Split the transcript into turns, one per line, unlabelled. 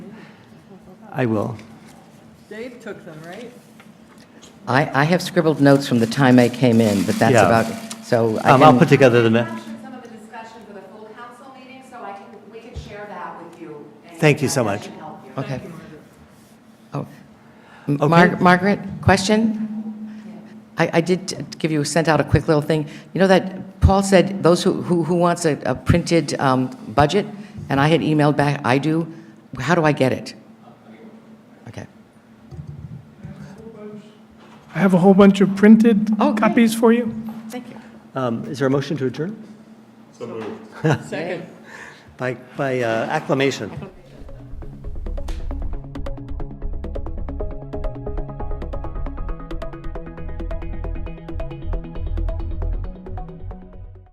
I will.
Dave took them, right?
I, I have scribbled notes from the time I came in, but that's
Yeah.
about, so I
Um, I'll
can-
put together the, ma-
captured some of the discussion for the full council meeting, so I can, we can share that with you. and
Thank you so
that
much.
should help you.
Okay. Oh,
Okay.
M- Mar- Margaret, question? I, I did give you, sent out a quick little thing. You know that Paul said, those who, who who wants a, a printed um, budget? And I had emailed back, I do. How do I get it? Okay.
I have a whole bunch of printed
Oh, great.
copies for you.
Thank you.
um, is there a motion to adjourn?
Second.
By, by uh, acclamation.